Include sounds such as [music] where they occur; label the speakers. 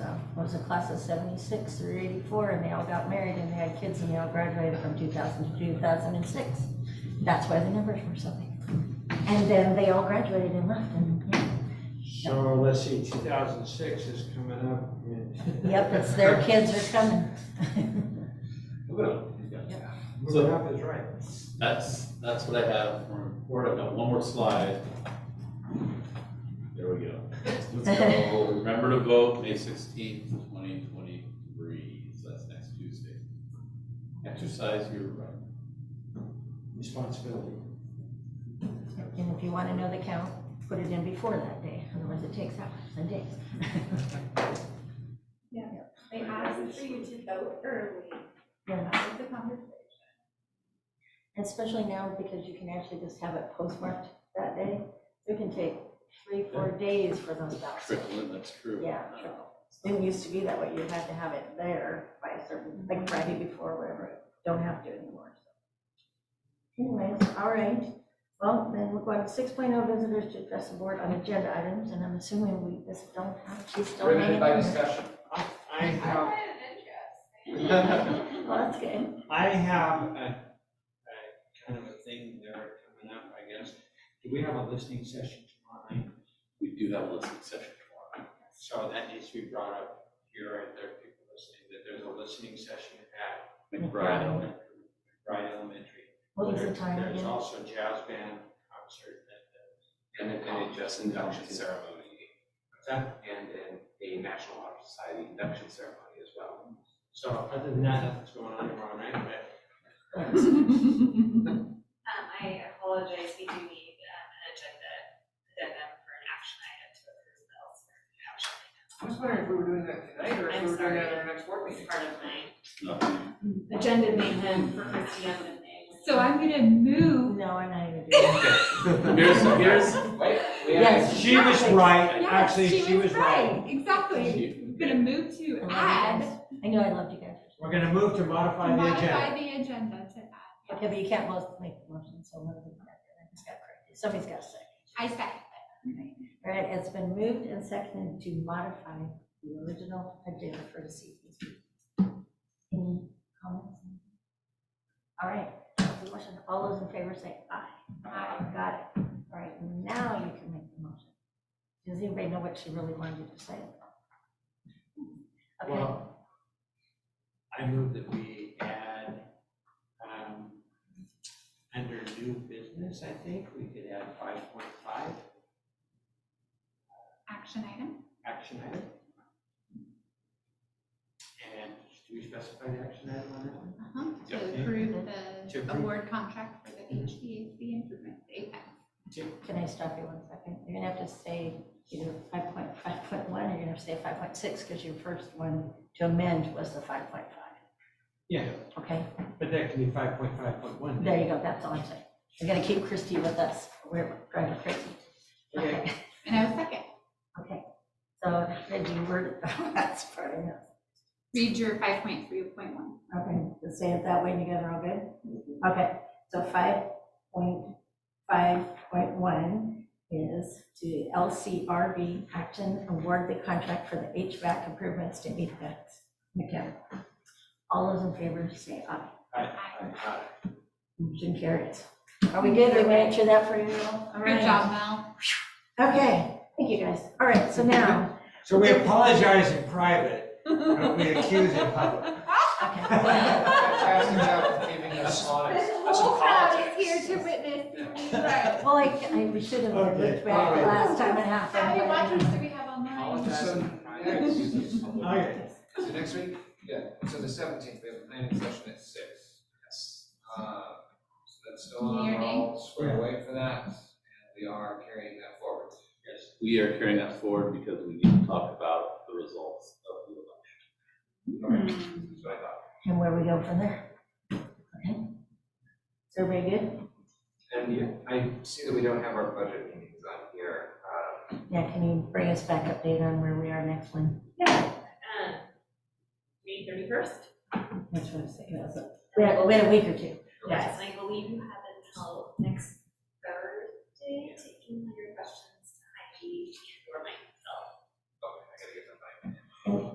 Speaker 1: It was a class of seventy-six through eighty-four, and they all got married, and they had kids, and they all graduated from two thousand to two thousand and six. That's why the numbers were so big. And then they all graduated and left, and, yeah.
Speaker 2: So let's see, two thousand six is coming up.
Speaker 1: [laughs] Yep, it's
Speaker 2: [laughs]
Speaker 1: their kids are coming.
Speaker 3: Well,
Speaker 2: Moving up is right.
Speaker 3: That's, that's what I have for report. I've got one more slide. There we go. Let's go. Remember to vote May sixteenth, twenty twenty-three. So that's next Tuesday. Exercise your right.
Speaker 2: Responsibility.
Speaker 1: And if you wanna know the count, put it in before that day, otherwise it takes hours and days.
Speaker 4: They asked for you to vote early.
Speaker 1: Yeah.
Speaker 4: That was the conversation.
Speaker 1: Especially now because you can actually just have it postmarked that day. It can take three, four days for those ballots.
Speaker 3: Triple in, that's true.
Speaker 1: Yeah, triple. Didn't used to be that way. You had to have it there by a certain, like Friday before, whatever. Don't have to anymore. so. Anyways, all right. Well, then we're going to six oh visitors to address the board on agenda items, and I'm assuming we just don't have, she's still hanging
Speaker 5: Riveted
Speaker 1: in
Speaker 5: by
Speaker 1: there.
Speaker 5: discussion.
Speaker 2: I I have
Speaker 1: Well, that's good.
Speaker 2: I have a, a kind of a thing there coming up, I guess. Do we have a listening session tomorrow night?
Speaker 3: We do have a listening session tomorrow.
Speaker 2: So that needs to be brought up here, and there are people listening, that there's a listening session at
Speaker 3: McBride Elementary.
Speaker 2: Bryan Elementary.
Speaker 1: What was the
Speaker 2: There-
Speaker 1: time
Speaker 2: There's
Speaker 1: again?
Speaker 2: also jazz band concert
Speaker 5: And then, and a just induction ceremony,
Speaker 2: at the,
Speaker 5: and then a National Honor Society induction ceremony as well.
Speaker 2: so other than that, nothing's going on tomorrow night, but
Speaker 6: Um, I apologize, we do need, um, an agenda, addendum for an action item to approve bills. Action item.
Speaker 5: I was wondering if we were doing that tonight, or
Speaker 6: if we were doing that at
Speaker 5: our next board
Speaker 6: It's part of my
Speaker 3: Nothing.
Speaker 6: agenda mayhem for Christiana.
Speaker 4: [laughs] [laughs] So I'm gonna move.
Speaker 1: No, I'm not even doing it.
Speaker 3: Here's, here's,
Speaker 5: Wait, we
Speaker 1: Yes.
Speaker 5: have,
Speaker 2: She was right,
Speaker 4: Yes,
Speaker 2: actually, she was right.
Speaker 4: Exactly.
Speaker 3: She-
Speaker 4: I'm gonna move
Speaker 1: I love you
Speaker 4: to add,
Speaker 1: guys. I know I loved you guys.
Speaker 2: We're gonna move to modify the agenda.
Speaker 4: modify the agenda to add.
Speaker 1: Okay, but you can't both make the motion, so one of them, has got corrected. somebody's got to say.
Speaker 4: I second.
Speaker 1: All right, it's been moved and seconded to modify the original agenda for this evening's meeting. Any comments? All right, the motion, all those in favor say aye. Aye. Got it. All right, now you can make the motion. Does anybody know what she really wanted to say? Okay,
Speaker 2: Well, I move that we add, um, under new business, I think, we could add five point five,
Speaker 4: Action item?
Speaker 2: action item. And do we specify the action item on that one?
Speaker 4: Uh-huh. To
Speaker 2: Yeah.
Speaker 4: approve
Speaker 2: To
Speaker 4: the
Speaker 2: approve. Mm-hmm.
Speaker 4: award contract for the HVAC improvement apex.
Speaker 1: can I stop you one second? You're gonna have to say either five point, five point one, or you're gonna have to say five point six, because your first one to amend was the five point five.
Speaker 2: Yeah,
Speaker 1: Okay?
Speaker 2: but that can be five point five point one.
Speaker 1: There you go, that's all I'm saying. We're gonna keep Christie with us, we're driving her crazy. Okay,
Speaker 4: And I was second.
Speaker 1: okay. So, Reggie, we're, [laughs] that's part of it.
Speaker 4: Read your five point three point one.
Speaker 1: Okay, just say it that way and you guys are all good? Okay, so five point, five point one is to LCRB Acton award the contract for the HVAC improvements to meet that. Okay. All those in favor, say aye.
Speaker 2: Uh,
Speaker 1: Motion carries. Are we good? We answer that for you all? All
Speaker 4: Good
Speaker 1: right.
Speaker 4: job, Mel.
Speaker 1: Okay, thank you guys. All right, so now,
Speaker 2: So we apologize in private, but we accuse
Speaker 5: [laughs]
Speaker 2: in public.
Speaker 1: okay.
Speaker 5: Fantastic job of keeping us honest.
Speaker 4: This whole crowd is here to witness. Right.
Speaker 1: Well, I, I we should have learned
Speaker 2: Okay,
Speaker 1: which back the
Speaker 2: all right.
Speaker 1: last time it
Speaker 4: How many
Speaker 1: happened.
Speaker 4: watchers do we have online? [laughs]
Speaker 2: Okay.
Speaker 5: So next week, yeah, so the seventeenth, we have a planning session at six. Yes. Uh, so that's still on, we're all squared away for that, and we are carrying that forward.
Speaker 3: yes, we are carrying that forward because we need to talk about the results of the election.
Speaker 4: Hmm. 嗯
Speaker 5: That's what I thought.
Speaker 1: And where we go from there. Okay. Is everybody good?
Speaker 5: And you- I see that we don't have our budget meetings on here, um,
Speaker 1: Yeah, can you bring us back update on where we are next one?
Speaker 6: Yeah. Um, May thirty-first?
Speaker 1: That's what I was thinking. We had, we had a week or two.
Speaker 6: Yes. I believe you have until next